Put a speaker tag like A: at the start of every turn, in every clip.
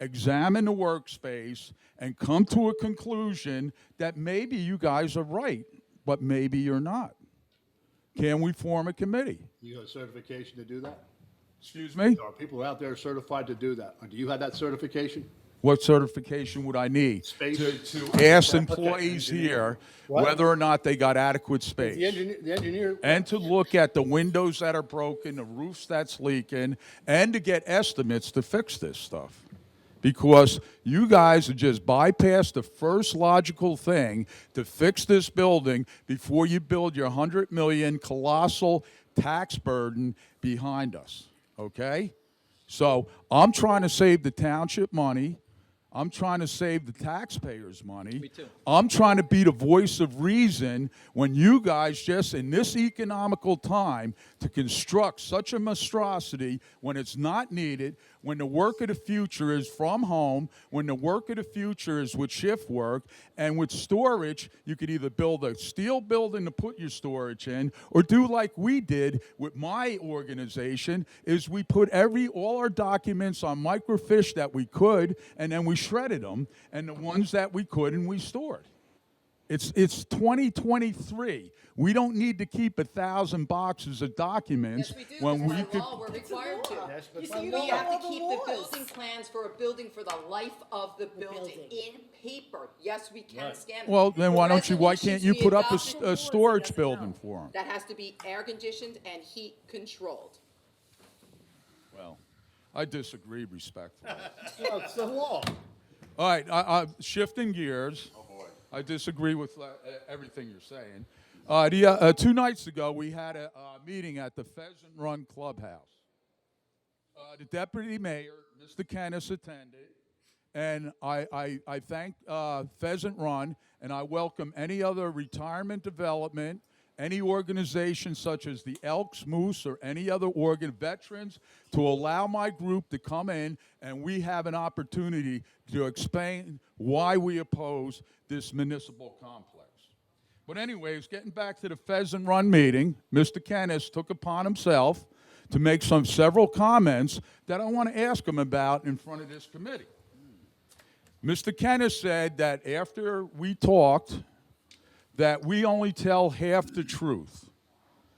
A: examine the workspace, and come to a conclusion that maybe you guys are right, but maybe you're not. Can we form a committee?
B: You got certification to do that?
A: Excuse me?
B: There are people out there certified to do that. Do you have that certification?
A: What certification would I need?
B: Space.
A: To, to ask employees here whether or not they got adequate space.
B: The engineer, the engineer,
A: and to look at the windows that are broken, the roofs that's leaking, and to get estimates to fix this stuff. Because you guys have just bypassed the first logical thing to fix this building before you build your 100 million colossal tax burden behind us, okay? So I'm trying to save the township money. I'm trying to save the taxpayers' money. Me too. I'm trying to be the voice of reason when you guys just in this economical time to construct such a monstrosity when it's not needed, when the work of the future is from home, when the work of the future is with shift work, and with storage, you could either build a steel building to put your storage in, or do like we did with my organization, is we put every all our documents on microfiche that we could, and then we shredded them, and the ones that we couldn't, we stored. It's it's 2023. We don't need to keep a thousand boxes of documents
C: Yes, we do,
A: when we
C: because by
A: could.
C: law, we're required to.
B: Yes, but
C: You
B: by
C: see,
B: law.
C: we have
D: All
C: to
D: the
C: keep the
D: laws.
C: building plans for a building for the life of the building in paper. Yes, we can scan. them.
A: Well, then
C: The
A: why don't you? Why
C: resolutions
A: can't you
C: we
A: put up a, s-
C: adopted-
A: a storage building for them?
C: That has to be air conditioned and heat controlled.
A: Well, I disagree respectfully.
B: well, it's the law.
A: All right, I, I, shifting gears. Oh boy. I disagree with uh, e- everything you're saying. Uh, the, uh, uh, two nights ago, we had a uh, meeting at the Pheasant Run Clubhouse. Uh, the deputy mayor, Mr. Kennis, attended, and I, I, I thank uh, Pheasant Run, and I welcome any other retirement development, any organization such as the Elks, Moose, or any other organ veterans to allow my group to come in, and we have an opportunity to explain why we oppose this municipal complex. But anyways, getting back to the Pheasant Run meeting, Mr. Kennis took upon himself to make some several comments that I want to ask him about in front of this committee. Mr. Kennis said that after we talked, that we only tell half the truth.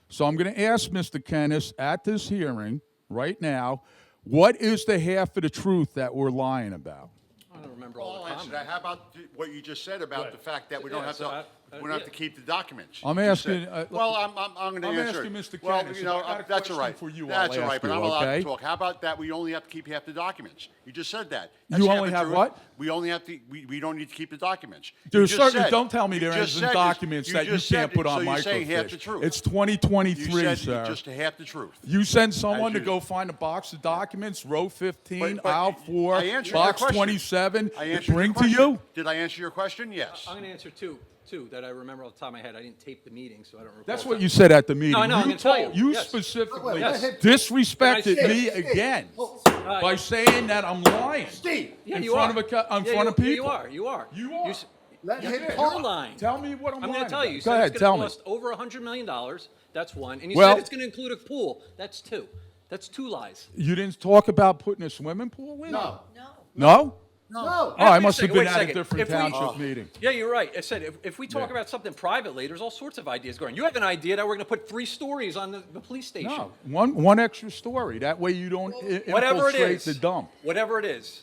A: So I'm going to ask Mr. Kennis at this hearing right now, what is the half of the truth that we're lying about?
E: I don't remember
F: I'll
E: all the
F: answer that.
E: comments.
F: How about th- what you just said about the fact that we don't
E: Yeah,
F: have
E: so I-
F: to,
E: uh,
F: we don't have to
E: yeah.
F: keep the documents?
A: I'm
F: You
A: asking,
F: said-
A: uh,
F: Well, I'm, I'm, I'm gonna
A: I'm
F: answer.
A: asking
F: it.
A: Mr.
F: Well,
A: Kennis,
F: you know,
A: if I got
F: uh,
A: a
F: That's
A: question
F: all right.
A: for you, I'll
F: That's all
A: ask
F: right, but
A: you,
F: I'm allowed
A: okay?
F: to talk. How about that, we only have to keep half the documents? You just said that. That's
A: You
F: half
A: only
F: the
A: have
F: truth.
A: what?
F: We only have to, we, we don't need to keep the documents. You
A: There's
F: just
A: certainly,
F: said-
A: don't tell me there
F: just
A: isn't
F: said-
A: documents that you
F: just said
A: can't
F: it,
A: put on
F: So you're saying half the
A: microfiche.
F: truth.
A: It's
F: You
A: 2023,
F: said
A: sir.
F: just half the truth.
A: You send someone to
F: you-
A: go find a box of documents, row 15,
F: But- but
A: aisle
F: you-
A: 4,
F: I answered your
A: box
F: question.
A: 27,
F: I
A: they
F: answered your
A: bring to
F: question.
A: you?
F: Did I answer your question? Yes.
E: I'm going to answer two, two that I remember off the top of my head. I didn't tape the meeting, so I don't recall.
A: That's what you said at the meeting.
E: No, I know, I'm
A: You
E: gonna tell
A: told-
E: you,
A: You
E: yes.
A: specifically
B: Yes.
A: disrespected
E: Can I
A: me
E: say-
A: again
E: Uh,
A: by saying that I'm lying.
B: Steve,
E: Yeah,
A: in
E: you
A: front
E: are.
A: of a co- in
E: Yeah,
A: front
E: you-
A: of people.
E: yeah, You are, you are.
A: You are.
E: s-
B: Let
E: you're-
B: him
E: You're
B: talk.
E: lying.
A: Tell me what I'm
E: I'm
A: lying
E: going to tell you.
A: about.
E: You
A: Go
E: said
A: ahead,
E: it's
A: tell
E: going
A: me.
E: to cost over $100 million. That's one. And you
A: Well-
E: said it's going to include a pool. That's two. That's two lies.
A: You didn't talk about putting a swimming pool in?
B: no,
A: No?
B: no.
A: Oh, I
E: Wait a
A: must have
E: second,
A: been
E: wait a
A: at a
E: second.
A: different
E: If we-
A: township meeting.
E: Yeah, you're right. I said, if, if we talk
A: Yeah.
E: about something privately, there's all sorts of ideas going. You have an idea that we're going to put three stories on the, the police station.
A: No, one, one extra story. That way you don't i-
E: Whatever it
A: infiltrate
E: is.
A: the dump.
E: Whatever it is.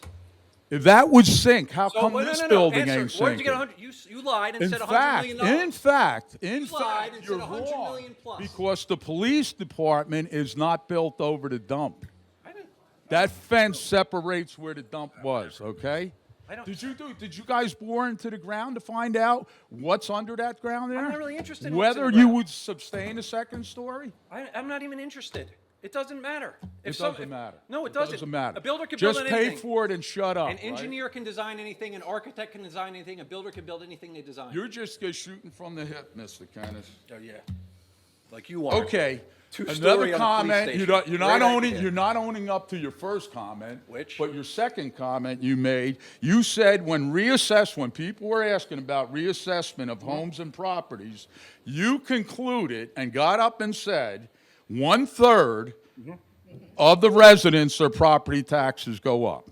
A: If that would sink, how
E: So,
A: come
E: well, no,
A: this
E: no, no,
A: building
E: answer.
A: ain't
E: Where'd
A: sinking?
E: you get 100? You, s- you lied and
A: In
E: said 100
A: fact,
E: million dollars.
A: in fact, in
E: You lied
A: fact,
E: and
A: you're
E: said 100
A: wrong.
E: million plus.
A: Because the police department is not built over the dump.
E: I didn't-
A: That fence separates where the dump was, okay?
E: I don't-
A: Did you do, did you guys bore into the ground to find out what's under that ground there?
E: not really interested in what's in
A: Whether
E: the
A: you
E: ground.
A: would sustain a second story?
E: I, I'm not even interested. It doesn't matter.
A: It
E: If some-
A: doesn't
E: if-
A: matter.
E: No, it, doesn't.
A: matter.
E: A builder can
A: Just
E: build
A: pay
E: anything.
A: for it and shut up,
E: An
A: right?
E: engineer can design anything. An architect can design anything. A builder can build anything they design.
A: You're just uh, shooting from the hip, Mr. Kennis.
E: oh, yeah. Like you are.
A: Okay.
E: Two-story on a
A: Another
E: police
A: comment, you're not,
E: station.
A: you're not
E: Great
A: owning,
E: idea.
A: you're not owning up to your first comment.
E: Which?
A: But your second comment you made, you said when reassess, when people were asking about reassessment of homes and properties, you concluded and got up and said,
E: Mm-hmm.
A: one-third of the residents, their property taxes go up.